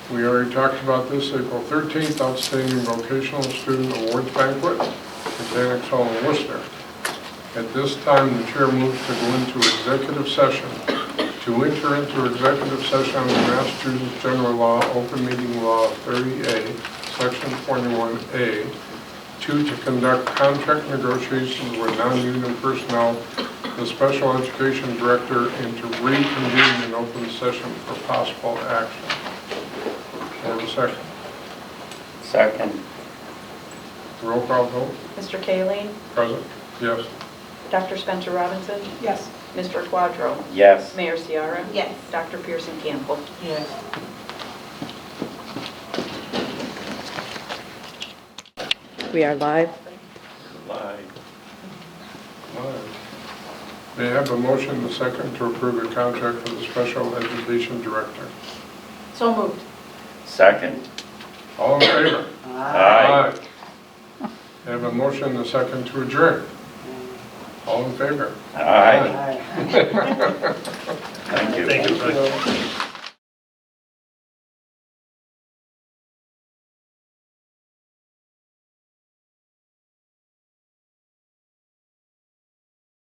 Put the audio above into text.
We already talked about this, April 13th, outstanding vocational student awards banquet at Xanax Hall in Worcester. At this time, the chair moves to go into executive session. To enter into executive session under Massachusetts General Law, Open Meeting Law 30A, Section 21A, two, to conduct contract negotiations with non-union personnel, the special education director, and to reconvene in open session for possible action. Hold a second. Second, Roll call vote, Mr. Kayleen, present, yes. Dr. Spencer Robinson, Yes. Mr. Quadro, yes. Mayor Ciara. Yes. Dr. Pearson Campbell. Yes. We are live. May I have a motion, and a second, to approve the contract for the special education director? So moved. Second, All in favor? aye. Aye. May I have a motion, and a second, to adjourn? All in favor? Aye, Aye. thank you. Thank you, Frank.